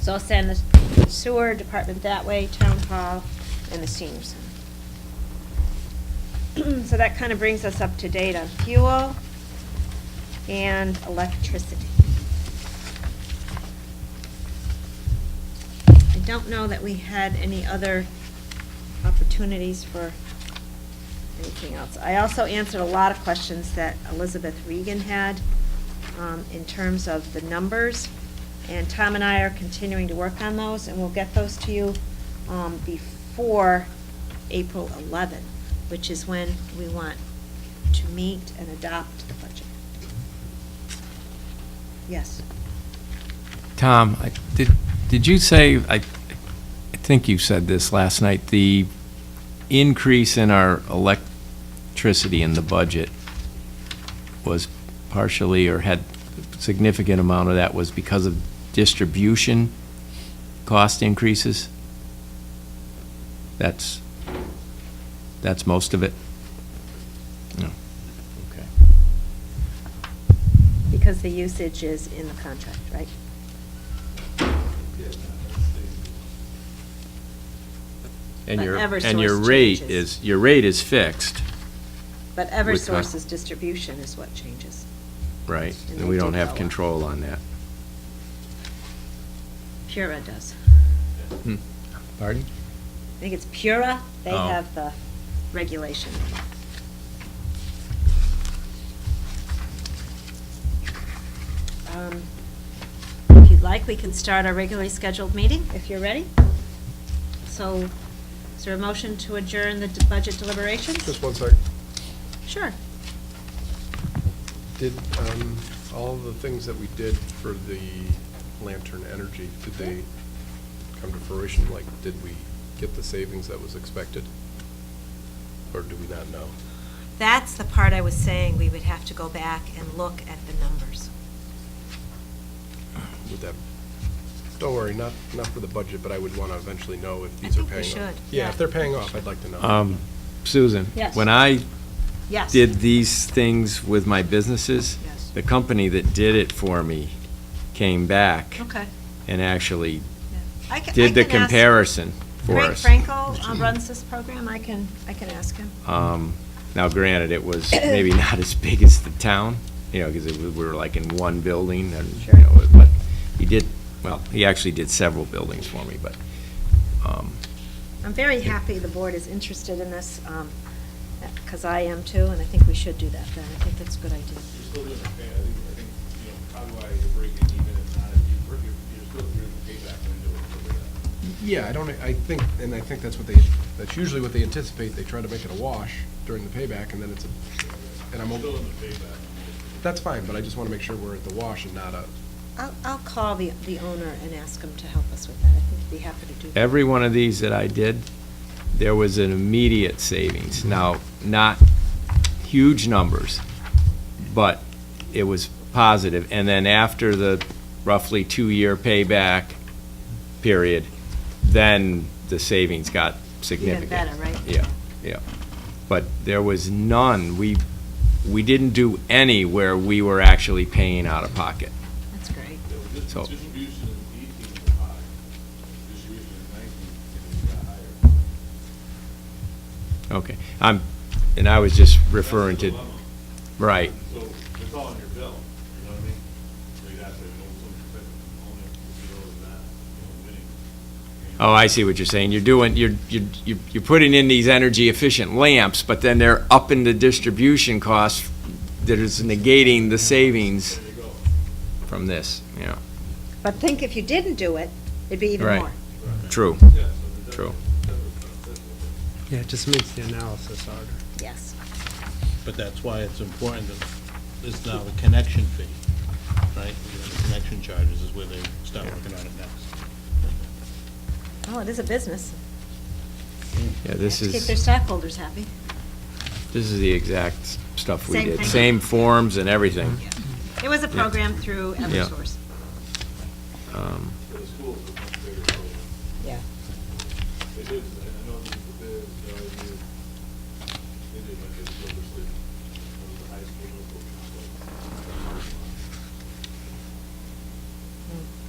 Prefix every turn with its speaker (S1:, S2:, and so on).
S1: So I'll send the sewer department that way, town hall, and the senior center. So that kind of brings us up to date on fuel and electricity. I don't know that we had any other opportunities for anything else. I also answered a lot of questions that Elizabeth Regan had um, in terms of the numbers, and Tom and I are continuing to work on those, and we'll get those to you um, before April 11, which is when we want to meet and adopt the budget. Yes.
S2: Tom, I- did, did you say, I, I think you said this last night, the increase in our electricity in the budget was partially, or had a significant amount of that was because of distribution cost increases? That's, that's most of it? No. Okay.
S1: Because the usage is in the contract, right?
S2: And
S1: But
S2: your, and
S1: Eversource
S2: your rate
S1: changes.
S2: is, your rate is fixed?
S1: But
S2: With con-
S1: Eversource's distribution is what changes.
S2: Right,
S1: And
S2: and
S1: they
S2: we
S1: do
S2: don't
S1: go
S2: have
S1: up.
S2: control on that.
S1: Pura does.
S2: Pardon?
S1: I think it's Pura, they
S2: Oh.
S1: have the regulation. Um, If you'd like, we can start our regularly scheduled meeting, if you're ready. So, is there a motion to adjourn the d- budget deliberations?
S3: Just one sec.
S1: Sure.
S3: Did, um, all the things that we did for the Lantern Energy, did they come to fruition? Like, did we get the savings that was expected? Or do we not know?
S4: That's the part I was saying, we would have to go back and look at the numbers.
S3: Would that, don't worry, not, not for the budget, but I would want to eventually know if
S4: I
S3: these are
S4: think we
S3: paying off.
S4: should,
S3: Yeah,
S4: yeah.
S3: if they're paying off, I'd like to know.
S2: Um, Susan?
S1: Yes.
S2: When I
S1: Yes.
S2: did these things with my businesses,
S4: Yes.
S2: the company that did it for me came back
S4: Okay.
S2: and actually
S1: I ca- I
S2: did the
S1: can ask-
S2: comparison for
S1: Frank
S2: us.
S1: Frankel uh, runs this program, I can, I can ask him.
S2: Um, Now granted, it was maybe not as big as the town, you know, because we were like in one building and, you
S1: Sure.
S2: know, but he did, well, he actually did several buildings for me, but, um,
S1: I'm very happy the board is interested in this, because I am too, and I think we should do that then. I think that's a good idea.
S5: You're still doing the pay, I think, I think, you know, probably why you're breaking even if not, if you, you're, you're still doing the payback window over that.
S3: Yeah, I don't, I think, and I think that's what they, that's usually what they anticipate. They try to make it a wash during the payback, and then it's a, and I'm,
S5: Still
S3: o-
S5: in the payback.
S3: that's fine, but I just want to make sure we're at the wash and not a,
S1: I'll, I'll call the, the owner and ask him to help us with that. I think he'd be happy to do that.
S2: every one of these that I did, there was an immediate savings. Now, not huge numbers, but it was positive. And then after the roughly two-year payback period, then the savings got significant.
S1: Even better, right?
S2: Yeah, yeah. But there was none, we, we didn't do any where we were actually paying out of pocket.
S1: That's great.
S5: This
S2: So-
S5: distribution in eighteen was high, distribution in nineteen, it got higher.
S2: Okay, I'm, and I was just
S5: That's the
S2: referring to,
S5: dilemma.
S2: right.
S5: So it's all on your bill, you know what I mean? So you have to know some type of component, you know, is not, you know, winning. you know.
S2: Oh, I see what you're saying. You're doing, you're, you're, you're- you're putting in these energy efficient lamps, but then they're upping the distribution costs that is negating the savings
S5: There you go.
S2: from this, yeah.
S1: But think if you didn't do it, it'd be even
S2: Right.
S1: more.
S2: True,
S5: Yeah, so it doesn't-
S2: True.
S5: it doesn't sound simple.
S6: Yeah, it just makes the analysis harder.
S1: Yes.
S7: But that's why it's important that there's now a connection fee, right? The Connection charges is where they start working on it next.
S1: Well, it is a business.
S2: yeah, this
S1: Have to keep their
S2: is,
S1: stockholders happy.
S2: this is the exact s- stuff we
S1: Same
S2: did.
S1: thing.
S2: Same forms and everything.
S1: It was a
S2: Mm-hmm. Yeah.
S1: program through Eversource.
S2: Um,
S5: For the schools, it's much bigger problem.
S1: Yeah.
S5: They did, I know this is the bid, so I knew, they did like a silver sleeve, one of the highest paid local.